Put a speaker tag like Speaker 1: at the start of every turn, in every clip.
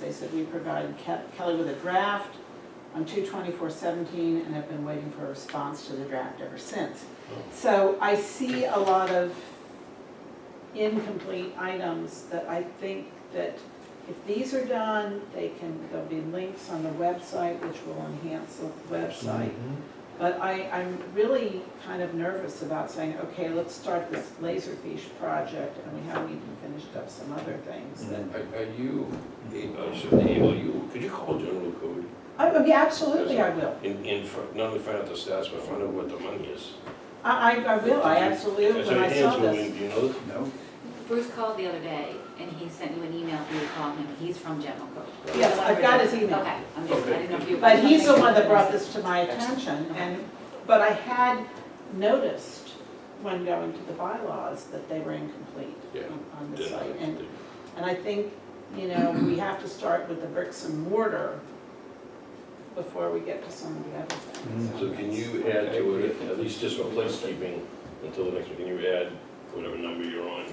Speaker 1: They said we provided Ke- Kelly with a draft on two twenty-four seventeen and have been waiting for a response to the draft ever since. So I see a lot of incomplete items that I think that if these are done, they can, there'll be links on the website, which will enhance the website. But I, I'm really kind of nervous about saying, okay, let's start this Laserfish project, and we haven't even finished up some other things
Speaker 2: Mm-hmm.
Speaker 1: that.
Speaker 3: Are are you, I should email you, could you call general code
Speaker 1: Oh, yeah, absolutely, I will.
Speaker 3: and, and fi- not only find out the stats, but find out what the money is?
Speaker 1: I, I, I will, I absolutely, will
Speaker 3: Is
Speaker 1: when
Speaker 3: there
Speaker 1: I saw
Speaker 3: hands going,
Speaker 1: this.
Speaker 3: do you know?
Speaker 4: No?
Speaker 5: Bruce called the other day and he sent you an email for you to call him. He's from General Code.
Speaker 1: Yes, I've got his email.
Speaker 5: Okay, I'm just, I didn't know if you.
Speaker 1: But he's the one that brought this to my attention, and, but I had noticed when going to the bylaws that they were incomplete
Speaker 3: Yeah.
Speaker 1: on- on the
Speaker 3: Then
Speaker 1: site.
Speaker 3: I-
Speaker 1: And And I think, you know, we have to start with the bricks and mortar before we get to some of the other things.
Speaker 3: Mm-hmm. So can you add to it, at least just for placekeeping, until the next week, can you add whatever number you're on?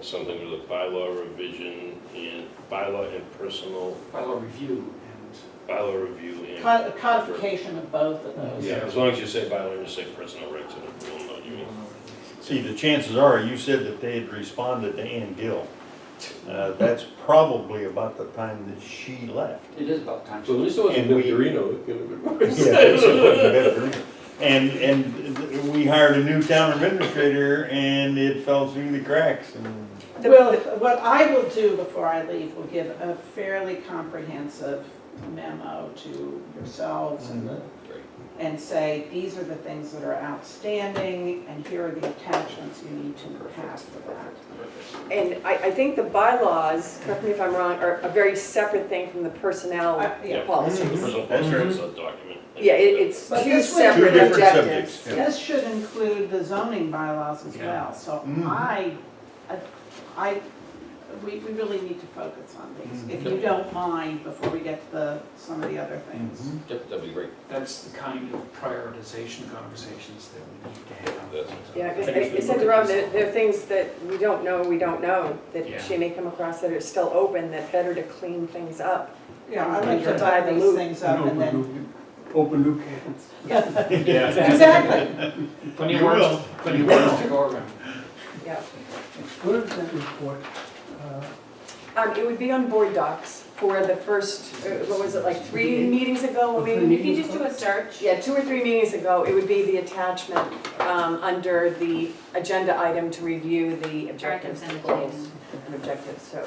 Speaker 3: Something with a bylaw revision and bylaw and personal,
Speaker 4: Bylaw review and.
Speaker 3: bylaw review and.
Speaker 1: Cod- Codification of both of those.
Speaker 3: Yeah, as long as you say bylaw, and you say personal rights, and it will not, you mean.
Speaker 2: See, the chances are, you said that they had responded to Ann Gill. Uh, That's probably about the time that she left.
Speaker 4: It is about time.
Speaker 3: So at least it wasn't
Speaker 2: And we-
Speaker 3: Victorino, it could have been worse.
Speaker 2: Yeah, that's a fucking better. And, and we hired a new town administrator and it fell through the cracks and.
Speaker 1: Well, what I will do before I leave will give a fairly comprehensive memo to yourselves
Speaker 2: Mm.
Speaker 1: and the- and say, these are the things that are outstanding, and here are the attachments you need to have for that.
Speaker 6: And I, I think the bylaws, correct me if I'm wrong, are a very separate thing from the personnel
Speaker 1: I-
Speaker 3: Yeah.
Speaker 1: Yeah,
Speaker 6: policy.
Speaker 3: The personal insurance document.
Speaker 6: Yeah, it, it's
Speaker 1: But
Speaker 6: two
Speaker 1: this would- Two
Speaker 6: separate
Speaker 1: different
Speaker 6: objectives.
Speaker 2: subjects, yeah.
Speaker 1: This should include the zoning bylaws as well, so
Speaker 2: Mhm.
Speaker 1: I, I- I, we, we really need to focus on these, if you
Speaker 3: Okay.
Speaker 1: don't mind, before we get to the, some of the other things.
Speaker 2: Mhm.
Speaker 3: Yep, that'd be great.
Speaker 4: That's the kind of prioritization conversations that we need to have.
Speaker 3: That's-
Speaker 6: Yeah, because I said to Rob, there, there are things that we don't know, we don't know,
Speaker 4: Yeah.
Speaker 6: that she may come across that are still open, that better to clean things up.
Speaker 1: Yeah, I'd like to
Speaker 6: Divide
Speaker 1: divide
Speaker 6: the
Speaker 1: these
Speaker 6: loop.
Speaker 1: things up and then,
Speaker 4: Open loop cans.
Speaker 1: exactly.
Speaker 4: Plenty of
Speaker 2: You
Speaker 4: words,
Speaker 2: will.
Speaker 4: plenty of
Speaker 2: You
Speaker 4: words to go around.
Speaker 6: Yeah.
Speaker 7: Where is that report? Uh,
Speaker 6: Um, it would be on board docs for the first, uh, what was it, like three meetings ago, when we
Speaker 7: Three
Speaker 5: If
Speaker 7: meetings.
Speaker 5: you just do a search,
Speaker 6: Yeah, two or three meetings ago, it would be the attachment um, under the agenda item to review the objectives
Speaker 5: send
Speaker 6: and
Speaker 5: it to you.
Speaker 6: goals and objectives, so.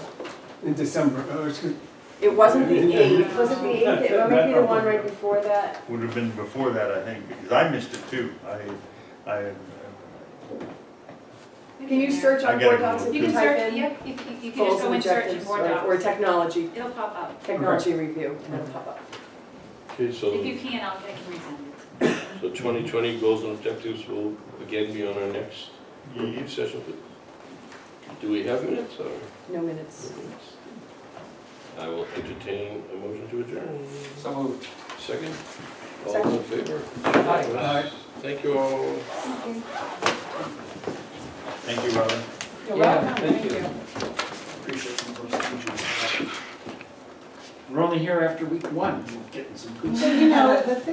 Speaker 7: In December, oh, excuse,
Speaker 6: It wasn't the eighth, was it the eighth? It might be the one right before that.
Speaker 2: Would have been before that, I think, because I missed it too. I, I, uh,
Speaker 6: Can you search
Speaker 2: I
Speaker 6: on
Speaker 2: gotta
Speaker 6: board
Speaker 2: go.
Speaker 6: docs if
Speaker 5: You
Speaker 6: you
Speaker 5: can
Speaker 6: type
Speaker 5: search,
Speaker 6: in?
Speaker 5: yep, if you, you can
Speaker 6: goals
Speaker 5: just go
Speaker 6: and
Speaker 5: and search and
Speaker 6: objectives
Speaker 5: board
Speaker 6: or- Or
Speaker 5: docs.
Speaker 6: technology,
Speaker 5: It'll pop up.
Speaker 6: technology review, and it'll pop up.
Speaker 3: Okay,
Speaker 5: If
Speaker 3: so,
Speaker 5: you can, I'll, I can resend it.
Speaker 3: so 2020 goals and objectives will again be on our next
Speaker 2: yeah,
Speaker 3: review session. Do we have minutes or?
Speaker 6: No minutes.
Speaker 3: I will entertain a motion to adjourn.
Speaker 4: So moved.
Speaker 3: Second, all in favor?
Speaker 4: Aye.
Speaker 3: Thank you all.
Speaker 2: thank you, Robin.
Speaker 1: You're
Speaker 4: Yeah,
Speaker 1: welcome,
Speaker 4: thank
Speaker 1: thank
Speaker 4: you.
Speaker 1: you.
Speaker 4: Appreciate some of those things you have. We're only here after week one, We're getting some good
Speaker 1: So, you know, the thing